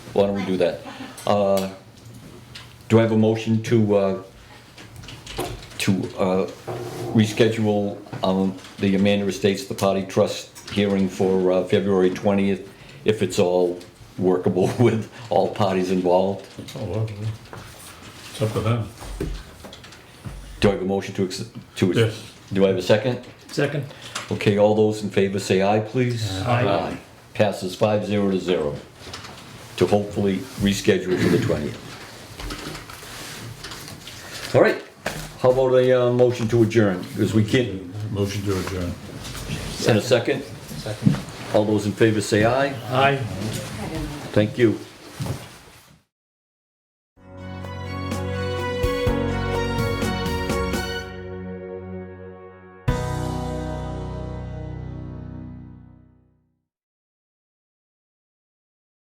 why don't we do that? Uh, Do I have a motion to, uh, to uh, reschedule um, the Amanda Estates, the party trust hearing for uh, February 20th, if it's all workable with all parties involved? Oh, well, it's up to them. Do I have a motion to, ex- to? Yes. Do I have a second? Second. Okay, all those in favor say aye, please. Aye. Passes five zero to zero to hopefully reschedule for the twentieth. All right, how about a uh, motion to adjourn? Because we can't, Motion to adjourn. send a second? All those in favor say aye. Aye. Thank you.